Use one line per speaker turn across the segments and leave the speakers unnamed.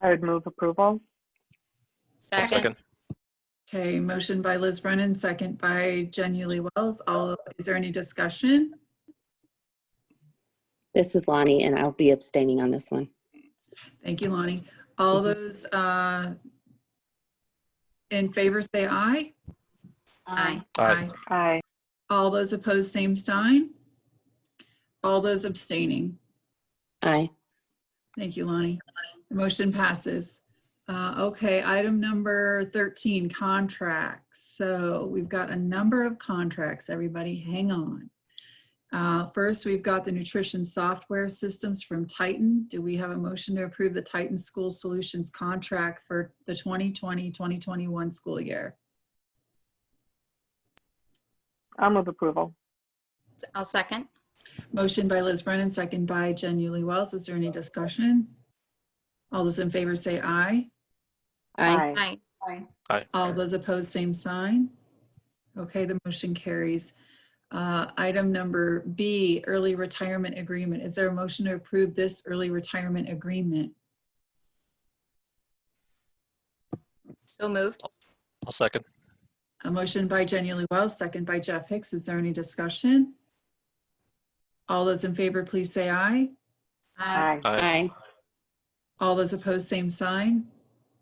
I would move approval.
Second.
Okay, motion by Liz Brennan, second by Jen Uli Wells. All, is there any discussion?
This is Lonnie, and I'll be abstaining on this one.
Thank you, Lonnie. All those uh, in favor, say aye.
Aye.
Aye.
Aye.
All those opposed, same sign. All those abstaining.
Aye.
Thank you, Lonnie. The motion passes. Uh, Okay, item number 13, contracts. So we've got a number of contracts, everybody, hang on. Uh, First, we've got the nutrition software systems from Titan. Do we have a motion to approve the Titan School Solutions contract for the 2020-2021 school year?
I'll move approval.
I'll second.
Motion by Liz Brennan, second by Jen Uli Wells. Is there any discussion? All those in favor say aye.
Aye.
Aye.
All those opposed, same sign. Okay, the motion carries. Uh, Item number B, early retirement agreement. Is there a motion to approve this early retirement agreement?
So moved.
I'll second.
A motion by Jenny Lee Wells, second by Jeff Hicks. Is there any discussion? All those in favor, please say aye.
Aye.
Aye.
Aye.
All those opposed, same sign.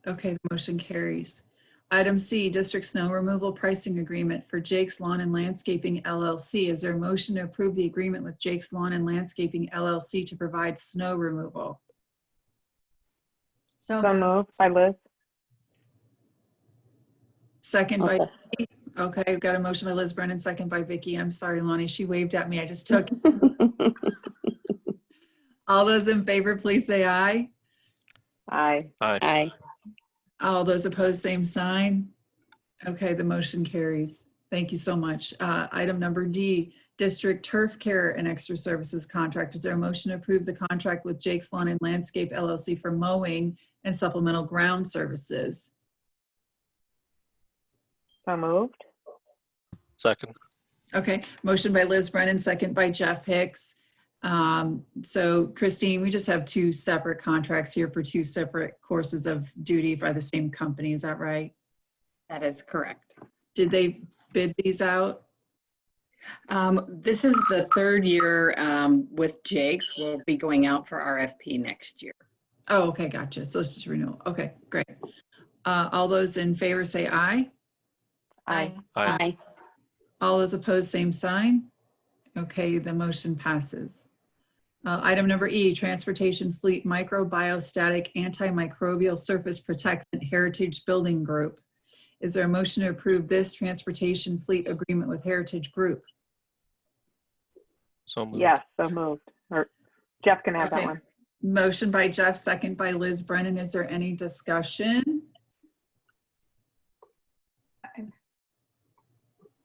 Okay, the motion carries. Item C, district snow removal pricing agreement for Jake's Lawn and Landscaping LLC. Is there a motion to approve the agreement with Jake's Lawn and Landscaping LLC to provide snow removal?
So moved by Liz.
Second
I'll
by,
sec-
okay, we've got a motion by Liz Brennan, second by Vicky. I'm sorry, Lonnie, she waved at me. I just took. All those in favor, please say aye.
Aye.
Aye.
Aye.
All those opposed, same sign. Okay, the motion carries. Thank you so much. Uh, Item number D, District Turf Care and Extra Services Contract. Is there a motion to approve the contract with Jake's Lawn and Landscape LLC for mowing and supplemental ground services?
So moved.
Second.
Okay, motion by Liz Brennan, second by Jeff Hicks. Um, So Christine, we just have two separate contracts here for two separate courses of duty by the same company. Is that right?
That is correct.
Did they bid these out?
Um, This is the third year um, with Jake's. We'll be going out for RFP next year.
Oh, okay, gotcha. So it's just renewal. Okay, great. Uh, All those in favor say aye.
Aye.
Aye.
Aye.
All those opposed, same sign. Okay, the motion passes. Uh, Item number E, Transportation Fleet Microbiostatic Antimicrobial Surface Protectant Heritage Building Group. Is there a motion to approve this transportation fleet agreement with Heritage Group?
So moved.
Yes, so moved. Or Jeff can have that
Okay.
one.
Motion by Jeff, second by Liz Brennan. Is there any discussion?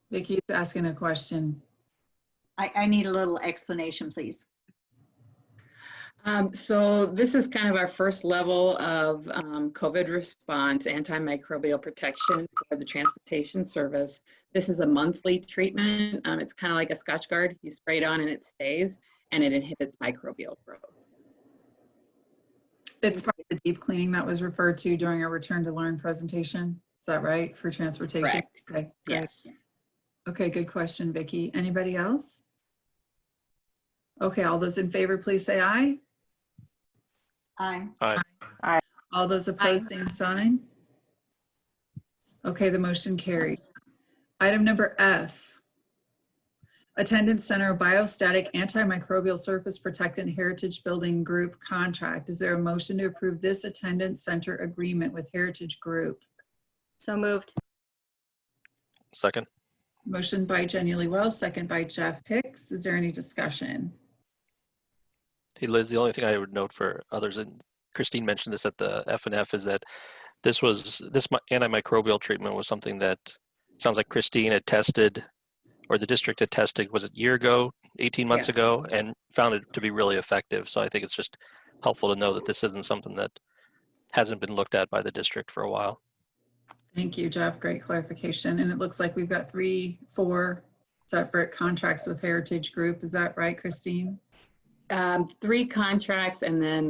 Vicky's asking a question.
I, I need a little explanation, please.
Um, So this is kind of our first level of um, COVID response, antimicrobial protection for the transportation service. This is a monthly treatment. Um, It's kind of like a Scotch guard. You spray it on and it stays, and it inhibits microbial growth. Mm-hmm.
It's part of the deep cleaning that was referred to during our return to learn presentation. Is that right, for transportation?
Correct.
Okay, great.
Yes.
Okay, good question, Vicky. Anybody else? Okay, all those in favor, please say aye.
Aye.
All those opposed, same sign. Okay, the motion carried. Item number F. Attendance Center Biostatic Antimicrobial Surface Protectant Heritage Building Group Contract. Is there a motion to approve this attendance center agreement with Heritage Group?
So moved.
Second.
Motion by Jenny Lee Wells, second by Jeff Hicks. Is there any discussion?
Hey Liz, the only thing I would note for others, and Christine mentioned this at the F and F, is that this was, this mi- antimicrobial treatment was something that sounds like Christine had tested, or the district had tested, was it a year ago, 18 months
Yes.
ago, and found it to be really effective. So I think it's just helpful to know that this isn't something that hasn't been looked at by the district for a while.
Thank you, Jeff. Great clarification. And it looks like we've got three, four separate contracts with Heritage Group. Is that right, Christine?
Um, Three contracts and then